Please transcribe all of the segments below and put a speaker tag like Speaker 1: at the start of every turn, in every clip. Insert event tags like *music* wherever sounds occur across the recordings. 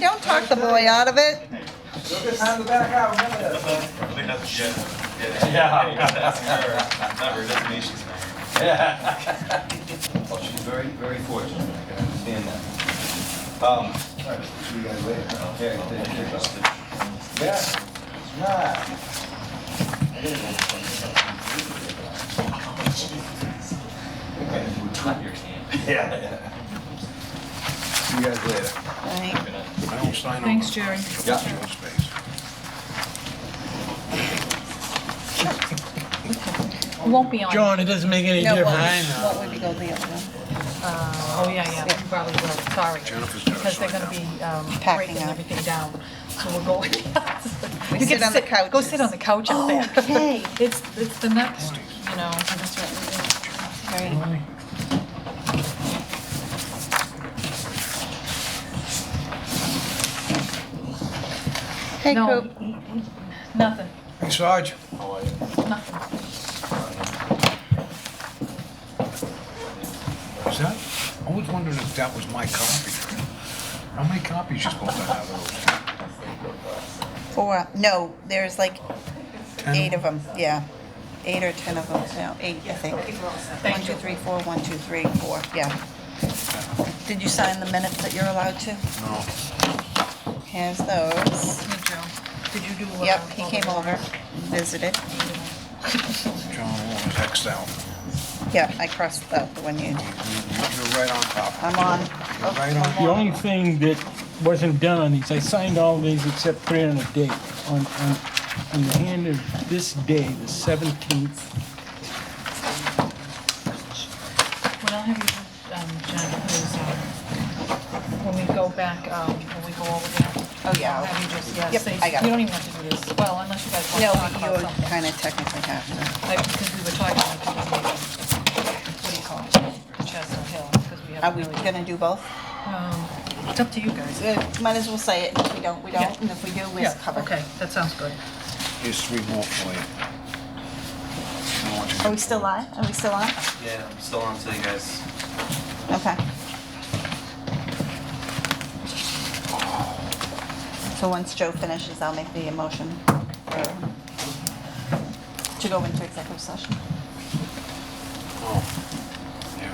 Speaker 1: Don't talk the boy out of it.
Speaker 2: Yeah.
Speaker 3: Number, designation's number.
Speaker 2: Well, she's very, very fortunate, I can understand that. Um, you guys later. Yeah, take care, bud. Yeah, it's not. I gotta go find something to do. Yeah, yeah. See you guys later.
Speaker 1: Right.
Speaker 4: I don't sign on.
Speaker 5: Thanks, Jerry.
Speaker 2: Yeah.
Speaker 4: Space.
Speaker 5: Won't be on.
Speaker 6: John, it doesn't make any
Speaker 1: No,
Speaker 6: difference.
Speaker 1: what, what would we go the other one?
Speaker 5: Uh, Oh, yeah, yeah, we probably will, sorry.
Speaker 4: Jennifer's gotta
Speaker 5: Because they're
Speaker 4: sign
Speaker 5: gonna be um,
Speaker 1: Packing
Speaker 5: breaking
Speaker 1: up.
Speaker 5: everything down, so we'll go. *laughs*
Speaker 1: We
Speaker 5: You
Speaker 1: sit
Speaker 5: can
Speaker 1: on the
Speaker 5: Go
Speaker 1: couches.
Speaker 5: sit on the couch out there.
Speaker 1: Okay.
Speaker 5: *laughs* It's, it's the next, you know.
Speaker 1: Right. Hey,
Speaker 5: No.
Speaker 1: Coop.
Speaker 5: Nothing,
Speaker 6: Hey, Sarge,
Speaker 5: nothing.
Speaker 4: Is that, I was wondering if that was my copy. How many copies you supposed to have of
Speaker 1: Four, no, there's like
Speaker 4: those?
Speaker 1: eight of them, yeah. Eight or 10 of them, no, eight, I think. One,
Speaker 5: Thank
Speaker 1: two,
Speaker 5: you.
Speaker 1: three, four, one, two, three, four, yeah. Did you sign the minutes that you're allowed to?
Speaker 4: No.
Speaker 1: Here's those.
Speaker 5: Hey, Joe, Did you do? uh,
Speaker 1: Yep, he
Speaker 5: all
Speaker 1: came
Speaker 5: the-
Speaker 1: over, visited.
Speaker 4: John Lawrence X out.
Speaker 1: Yeah, I crossed out the one you,
Speaker 4: You're right on top.
Speaker 1: I'm on.
Speaker 4: You're right on.
Speaker 6: the only thing that wasn't done on these, I signed all these except three on a date. On, on, on the hand of this day, the 17th,
Speaker 5: What I'll have you, do, um, Jen, is, um, when we go back, um, when we go over there.
Speaker 1: Oh, yeah.
Speaker 5: I'll have you just, yeah,
Speaker 1: Yep,
Speaker 5: say,
Speaker 1: I got
Speaker 5: you
Speaker 1: it.
Speaker 5: don't even have to do this, well, unless you guys want
Speaker 1: No,
Speaker 5: to talk about
Speaker 1: you
Speaker 5: something.
Speaker 1: kind of technically have to.
Speaker 5: Like, because we were talking about, what do you call it, Chestnut Hill, because we
Speaker 1: Are
Speaker 5: have
Speaker 1: we
Speaker 5: really.
Speaker 1: gonna do both?
Speaker 5: um, It's up to you guys.
Speaker 1: Uh, Might as well say it, if we don't, we don't, and if we do, we're
Speaker 5: Yeah,
Speaker 1: covered.
Speaker 5: Okay, that sounds good.
Speaker 4: Here's three more for you. I want you to-
Speaker 1: Are we still live? Are we still on?
Speaker 3: Yeah, I'm still on to you guys.
Speaker 1: Okay. So once Joe finishes, I'll make the motion for- to go into executive session.
Speaker 4: Oh, yeah.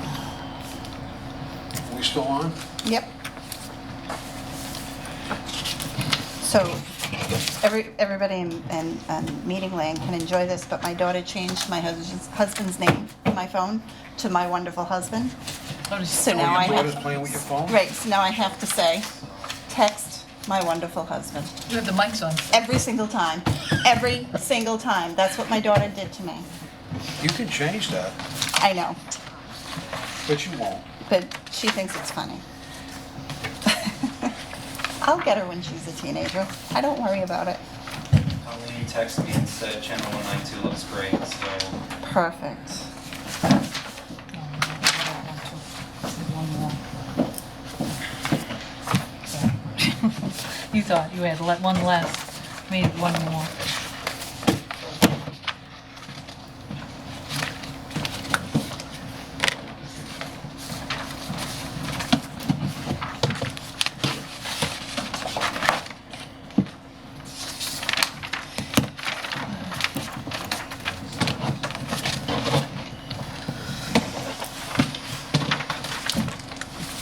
Speaker 4: We still on?
Speaker 1: Yep. So, every, everybody in, in um, Meeting Land can enjoy this, but my daughter changed my husband's, husband's name in my phone to my wonderful husband. So
Speaker 4: Oh,
Speaker 1: now I
Speaker 4: Your daughter's
Speaker 1: have,
Speaker 4: playing with your phone?
Speaker 1: right, so now I have to say, text my wonderful husband,
Speaker 5: You have the mics on.
Speaker 1: every single time, every single time. That's what my daughter did to me.
Speaker 4: You can change that,
Speaker 1: I know,
Speaker 4: but you won't.
Speaker 1: but she thinks it's funny. *laughs* I'll get her when she's a teenager. I don't worry about it.
Speaker 3: Colleen texted me and said channel 192 looks great, so
Speaker 1: Perfect.
Speaker 5: No, no, no, no, no, no, two. One more. Sorry. *laughs* You thought you had le- one less, made one more.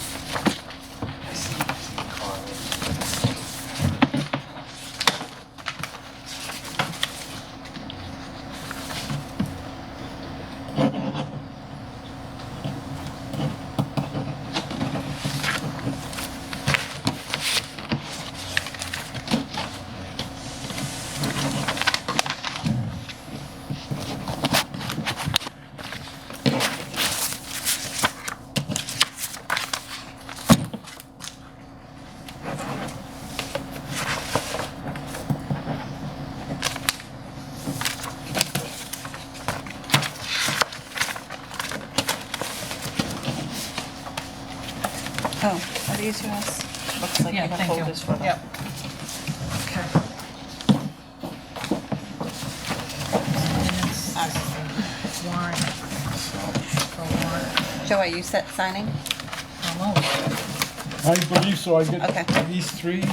Speaker 3: I see Colin.
Speaker 1: Oh, are these yours? Looks like
Speaker 5: Yeah,
Speaker 1: you have
Speaker 5: thank you.
Speaker 1: folders for them.
Speaker 5: Yep. Okay. Minutes, Warrant. For warrant.
Speaker 1: Joe, are you set signing?
Speaker 5: Almost.
Speaker 6: I believe so, I get
Speaker 1: Okay.
Speaker 6: these three